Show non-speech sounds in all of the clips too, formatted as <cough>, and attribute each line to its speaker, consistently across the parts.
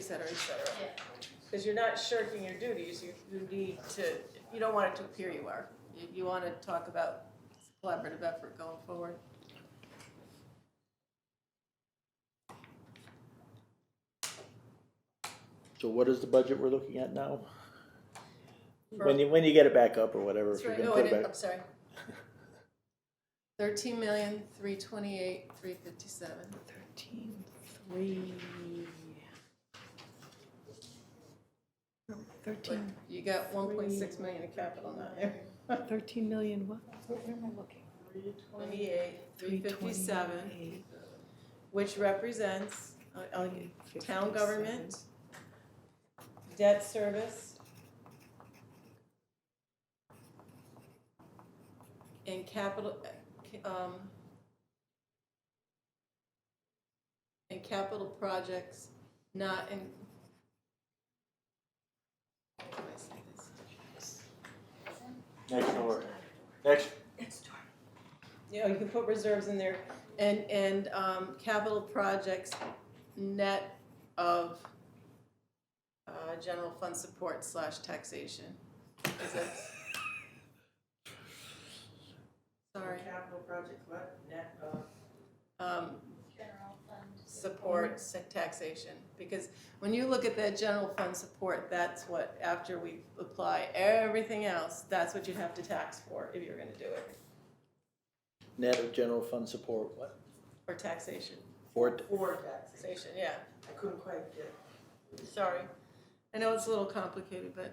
Speaker 1: cetera, et cetera.
Speaker 2: Yeah.
Speaker 1: Because you're not shirking your duties, you, you need to, you don't want it to appear you are. You, you want to talk about collaborative effort going forward.
Speaker 3: So what is the budget we're looking at now?
Speaker 1: For-
Speaker 3: When you, when you get it back up or whatever, if
Speaker 1: That's
Speaker 3: you're
Speaker 1: right,
Speaker 3: gonna
Speaker 1: oh, I
Speaker 3: put it
Speaker 1: did,
Speaker 3: back.
Speaker 1: I'm sorry. Thirteen million, three twenty-eight, three fifty-seven.
Speaker 3: Thirteen, three.
Speaker 1: But
Speaker 3: Thirteen,
Speaker 1: you got one point six million in capital now. there.
Speaker 3: thirteen million what?
Speaker 1: Twenty-eight, three fifty-seven, which represents, uh, uh, town government, debt service, and capital, uh, um, and capital projects not in. How do I say this?
Speaker 3: Next door, next,
Speaker 1: you know, you can put reserves in there, and, and, um, capital projects net of, uh, general fund support slash taxation. Is that- Sorry,
Speaker 4: Capital project, what, net uh, of?
Speaker 1: um,
Speaker 2: General fund.
Speaker 1: support sa- taxation, because when you look at that general fund support, that's what, after we apply everything else, that's what you'd have to tax for if you're gonna do it,
Speaker 3: net of general fund support, what?
Speaker 1: or taxation,
Speaker 3: Four,
Speaker 4: Or taxation.
Speaker 1: taxation, yeah.
Speaker 4: I couldn't quite get.
Speaker 1: Sorry. I know it's a little complicated, but,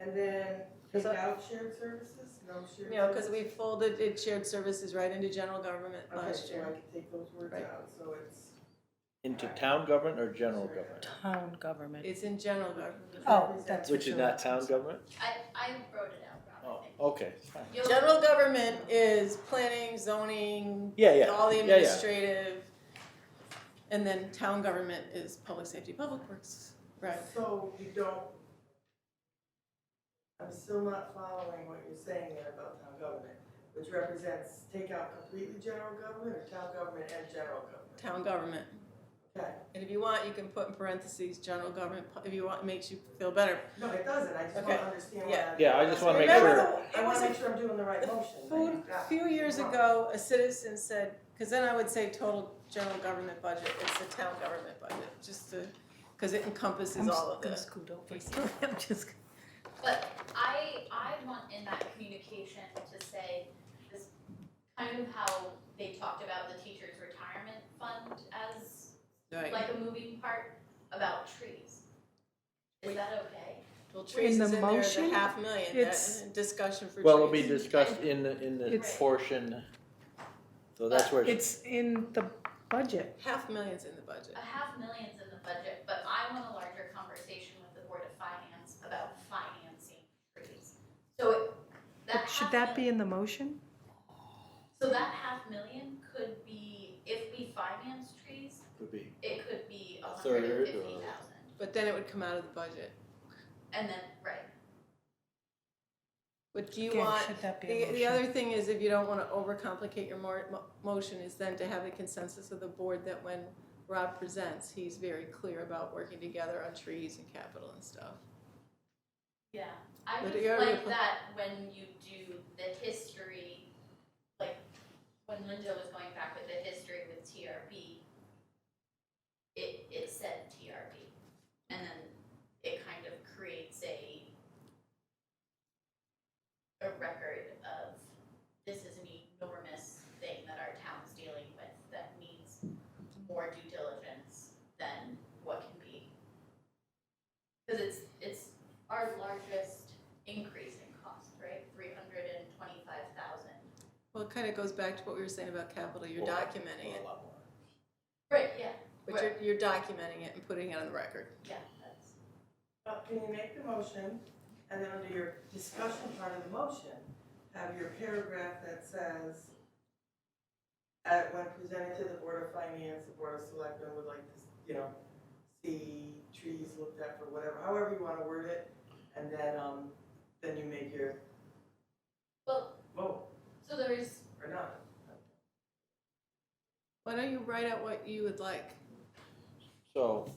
Speaker 4: And then
Speaker 1: Cause I-
Speaker 4: without shared services, no shared.
Speaker 1: you know, because we
Speaker 4: services?
Speaker 1: folded it shared services right into general government
Speaker 4: Okay,
Speaker 1: last
Speaker 4: so I
Speaker 1: year.
Speaker 4: can take those words
Speaker 1: Right.
Speaker 4: out, so it's.
Speaker 3: into town government or general government?
Speaker 5: Town government.
Speaker 1: It's in general government.
Speaker 5: Oh, that's-
Speaker 3: Which is not town government?
Speaker 2: I, I wrote it out,
Speaker 3: Oh,
Speaker 2: Robin.
Speaker 3: okay, it's fine.
Speaker 2: You'll-
Speaker 1: General government is planning, zoning,
Speaker 3: Yeah, yeah,
Speaker 1: all the
Speaker 3: yeah, yeah.
Speaker 1: administrative. And then town government is public safety, public works, right?
Speaker 4: So you don't. I'm still not following what you're saying there about town government, which represents take out completely general government or town government and general government?
Speaker 1: Town government.
Speaker 4: Okay,
Speaker 1: And if you want, you can put in parentheses, general government, pu- if you want, makes you feel better.
Speaker 4: no, it doesn't, I just
Speaker 1: Okay,
Speaker 4: wanna understand what
Speaker 1: yeah.
Speaker 4: I'm.
Speaker 3: Yeah, I just wanna make
Speaker 1: Remember
Speaker 3: sure.
Speaker 1: the-
Speaker 4: I
Speaker 1: it was
Speaker 4: wanna
Speaker 1: a
Speaker 4: make sure I'm doing the right
Speaker 1: the
Speaker 4: motion. that
Speaker 1: food-
Speaker 4: you've got.
Speaker 1: A few years
Speaker 4: Wrong.
Speaker 1: ago, a citizen said, because then I would say total general government budget, it's the town government budget, just to, because it encompasses
Speaker 5: I'm
Speaker 1: all of
Speaker 5: just gonna
Speaker 1: this.
Speaker 5: scoot over <laughs> here. I'm
Speaker 1: <laughs>
Speaker 5: just.
Speaker 2: But I, I want in that communication to say, this, kind of how they talked about the teacher's retirement fund as
Speaker 1: Right,
Speaker 2: like a moving part about trees. Is that okay?
Speaker 1: well, trees
Speaker 5: the
Speaker 1: is in there, the
Speaker 5: motion,
Speaker 1: half million,
Speaker 5: it's-
Speaker 1: that, discussion for trees.
Speaker 3: Well, it'll be discussed in the, in the
Speaker 5: It's-
Speaker 3: portion, so
Speaker 1: Uh,
Speaker 3: that's where, it's-
Speaker 5: It's in the budget.
Speaker 1: Half million's in the budget,
Speaker 2: A half million's in the budget, but I want a larger conversation with the Board of Finance about financing trees. So it- that
Speaker 5: Should
Speaker 2: half
Speaker 5: that
Speaker 2: million-
Speaker 5: be in the motion?
Speaker 2: So that half million could be, if we finance trees,
Speaker 3: could be,
Speaker 2: it could be a
Speaker 3: A
Speaker 2: hundred and
Speaker 3: third
Speaker 2: fifty
Speaker 3: or-
Speaker 2: thousand.
Speaker 1: but then it would come out of the budget.
Speaker 2: And then, right,
Speaker 1: But do you
Speaker 5: Again,
Speaker 1: want,
Speaker 5: Should that be
Speaker 1: the,
Speaker 5: a
Speaker 1: the
Speaker 5: motion?
Speaker 1: other thing is, if you don't wanna overcomplicate your more, mo- motion, is then to have the consensus of the board that when Rob presents, he's very clear about working together on trees and capital and stuff.
Speaker 2: yeah. I
Speaker 1: But
Speaker 2: would
Speaker 1: you already
Speaker 2: like
Speaker 1: put-
Speaker 2: that when you do the history, like, when Linda was going back with the history with TRB, it, it said TRB, and then it kind of creates a a record of this is an enormous thing that our town's dealing with that needs more due diligence than what can be. Because it's, it's our largest increase in cost, right? Three hundred and twenty-five thousand.
Speaker 1: Well, it kind of goes back to what we were saying about capital, you're
Speaker 3: Well,
Speaker 1: documenting
Speaker 3: well, a
Speaker 1: it,
Speaker 3: lot more.
Speaker 2: Right, yeah,
Speaker 1: but you're, you're documenting it and putting it on the record.
Speaker 2: yeah, that's,
Speaker 4: Well, Can you make the motion, and then under your discussion part of the motion, have your paragraph that says, "At- when presented to the Board of Finance, the Board of Selectmen would like to, you know, see trees looked at for whatever, however you wanna word it, and then, um, then you make your
Speaker 2: well,
Speaker 4: vote,
Speaker 2: so there is,
Speaker 4: or not.
Speaker 1: Why don't you write out what you would like?
Speaker 3: So.